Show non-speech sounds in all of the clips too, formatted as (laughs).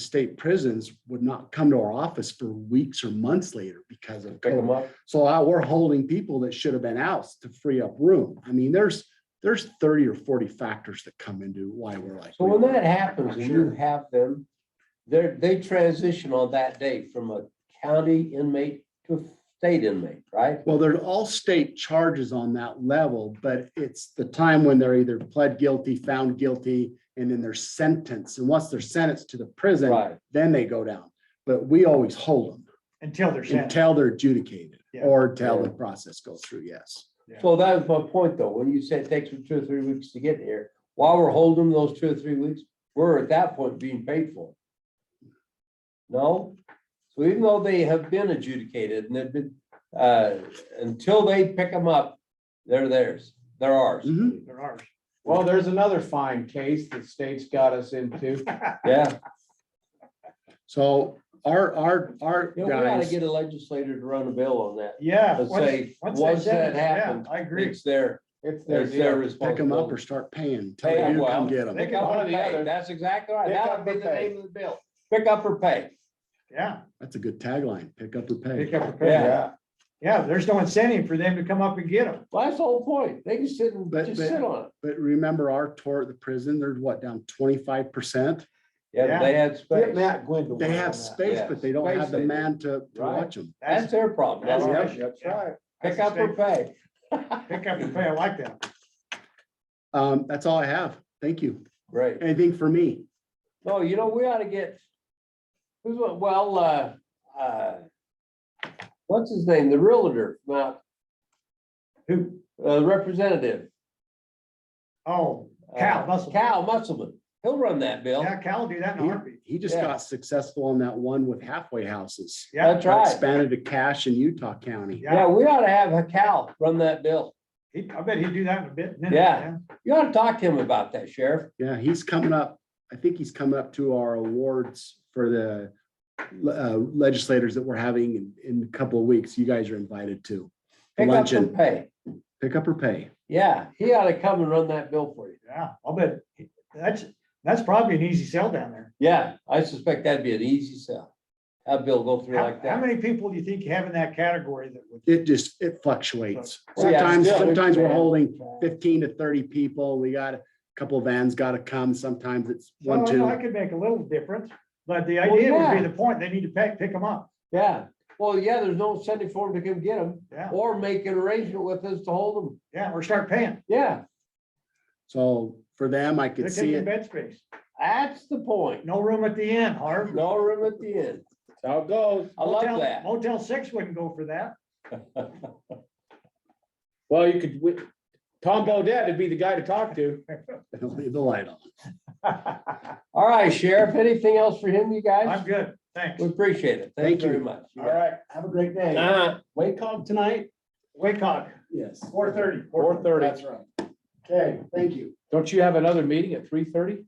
state prisons would not come to our office for weeks or months later because of Pick COVID. them up. So I- we're holding people that should have been out to free up room. I mean, there's, there's thirty or forty factors that come into why we're like. So when that happens and you Sure. have them, they're, they transition on that day from a county inmate to a state inmate, right? Well, they're all state charges on that level, but it's the time when they're either pled guilty, found guilty, and then they're sentenced. And once they're sentenced to the prison, Right. then they go down. But we always hold them Until they're sent. until they're adjudicated Yeah. or till the process goes through, yes. So that was my point though, when you said it takes them two or three weeks to get here, while we're holding those two or three weeks, we're at that point being paid for. No? So even though they have been adjudicated and they've been, uh, until they pick them up, they're theirs, they're ours. Mhm. They're ours. Well, there's another fine case that state's got (laughs) us into. Yeah, So our, our, our you know, we gotta guys, get a legislator to run a bill on that. Yeah. Let's once- say, they once send that it, yeah, happens, I agree. It's their, It's their it's their deal. pick them up or responsibility. start paying, till Hey, you well, come get them. they Pick up One or or the pay, other. that's exactly right. Pick That'll up be or the pay. name of the bill. Pick up or pay. Yeah, That's a good tagline, pick up or pay. pick up the Yeah. pay. Yeah, there's no incentive for them to come up and get them. Well, that's the whole point. They can sit and But- just but- sit on it. But remember our tour at the prison, they're what, down twenty-five percent? Yeah, Yeah. but they had Get space. Matt Gwendolyn. They on have that. space, but they don't Space have the they do. man to, to Right. watch them. That's their problem. That's not their ours. issue. That's right. Pick up or pay. Pick up the pay. I like that. Um, that's all I have. Thank you. Right. Anything for me? No, you know, we ought to get, who's, what- well, uh, uh, what's his name? The realtor, uh, Who? uh, representative. Oh, uh, Cal Musselman. Cal Musselman. He'll run that bill. yeah, Cal will do that in a heartbeat. He just Yeah. got successful on that one with halfway houses. Yeah, That's right. Expanded to cash in Utah County. Yeah, yeah. we ought to have Cal run that bill. He, I bet he'd do that in a bit. minute, Yeah. You ought to talk to him about that, Sheriff. Yeah, he's coming up. I think he's coming up to our awards for the uh, legislators that we're having in, in a couple of weeks. You guys are invited to Pick up Luncheon. and pay. pick up or pay. Yeah, he ought to come and run that bill for you. Yeah, I'll bet. he- That's, that's probably an easy sell down there. Yeah, I suspect that'd be an easy sell. That bill go through How, like how that. many people do you think you have in that category that would? It just, it fluctuates. Well, yeah, Sometimes, still, we sometimes we're can- holding fifteen to thirty people. We got a couple of vans got to come. Sometimes it's one, Well, Oh, I two. could make a little difference, but the Well, idea would yeah. be the point, they need to pick, pick them up. Yeah, well, yeah, there's no incentive for him to come get them Yeah, or make an arrangement with us to hold them. yeah, or start paying. Yeah, So for them, I They're could see taking it. bed space. that's the point. No room at the end, Harv. No room at the end. How it goes. I love Motel- that. Motel six wouldn't go for that. (laughs) Well, you could, wi- Tom Bodett would be the guy to talk to. Leave the light on. All right, Sheriff, anything else for him, you I'm guys? good, thanks. We appreciate it. Thank Thanks very you. much. All right. Have a great day. Uh, Wake up tonight? Wake up. Yes. Four thirty. four thirty. right. Okay, thank you. Don't you have another meeting at three thirty?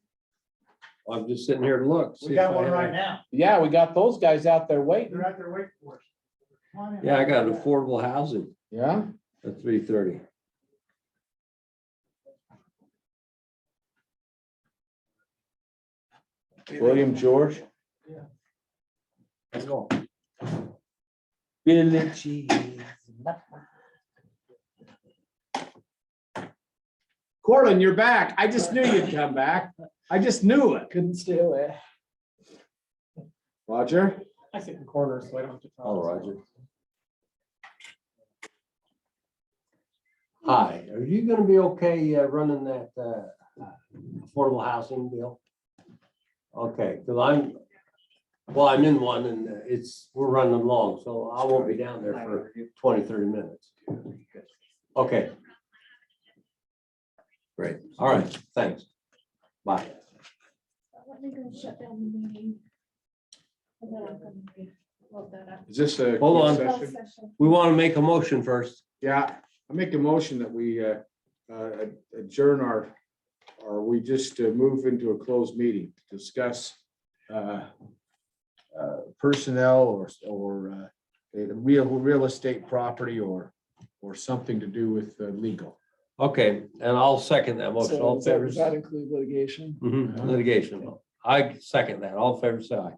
I'm just sitting here to look. see We if got I one have right any- now. Yeah, we got those guys out there waiting. They're out there waiting for us. Come on in. affordable housing Yeah. at three thirty. William George. Yeah. Let's go. Billy Cheese. Corlin, you're back. I just knew you'd come back. I just knew it. Couldn't stay away. Roger? I sit in corners, so I don't have to. Oh, Roger. Hi, are you gonna be okay uh, running that uh, affordable housing deal? Okay, because I'm, well, I'm in one and uh, it's, we're running long, so I won't be down there for 20, 30 minutes. Okay. Great, all right, thanks. Bye. Let me go shut down the meeting. And then I'm gonna load that up. Is this a? Hold on. Closed session. We want to make a motion first. Yeah, I make a motion that we uh, uh, adjourn our, or we just uh, move into a closed meeting to discuss uh, uh, personnel or, or uh, the real, real estate property or, or something to do with uh, legal. Okay, and I'll second that motion. All in favor? include Mm, litigation? Mhm, Litigation. I second that. All in favor, say aye.